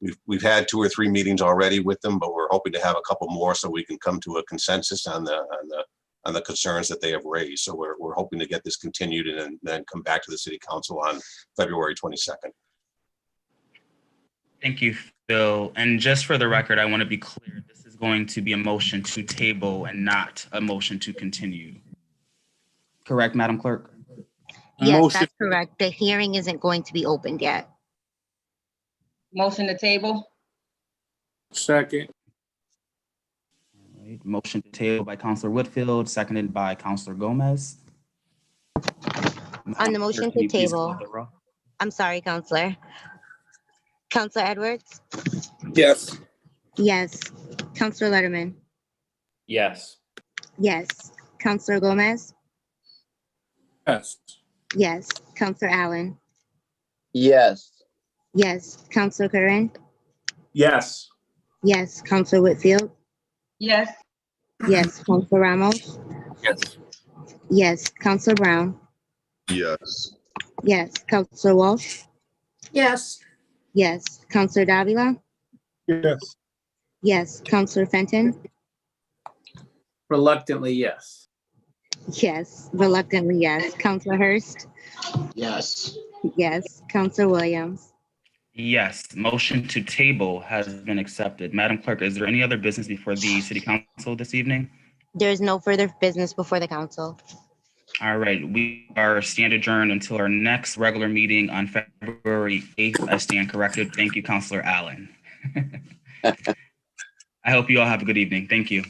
We've, we've had two or three meetings already with them, but we're hoping to have a couple more so we can come to a consensus on the, on the, on the concerns that they have raised. So we're, we're hoping to get this continued and then- then come back to the city council on February 22nd. Thank you, Phil. And just for the record, I want to be clear, this is going to be a motion to table and not a motion to continue. Correct, Madam Clerk? Yes, Motion, that's correct. The hearing isn't going to be opened yet. Motion to table? second, All right, Motion to table by Counselor Whitfield, seconded by Counselor Gomez. On the motion to table. I'm sorry, Counselor. Counselor Edwards? yes, Yes. Counselor Letterman? Yes. Yes. Counselor Gomez? yes, Yes. Counselor Allen? yes, Yes. Counselor Curran? Yes. Yes. Counselor Whitfield? Yes. Yes. Counselor Ramos? Yes. Yes. Counselor Brown? Yes. Yes. Counselor Walsh? yes, Yes. Counselor Davila? yes, Yes. Counselor Fenton? Reluctantly, yes. Yes. Reluctantly, yes. Counselor Hurst? Yes. Yes. Counselor Williams? Yes, motion to table has been accepted. Madam Clerk, is there any other business before the city council this evening? There is no further business before the council. All right, we are stand adjourned until our next regular meeting on February 8th. I stand corrected. Thank you, Counselor Allen. I hope you all have a good evening. Thank you.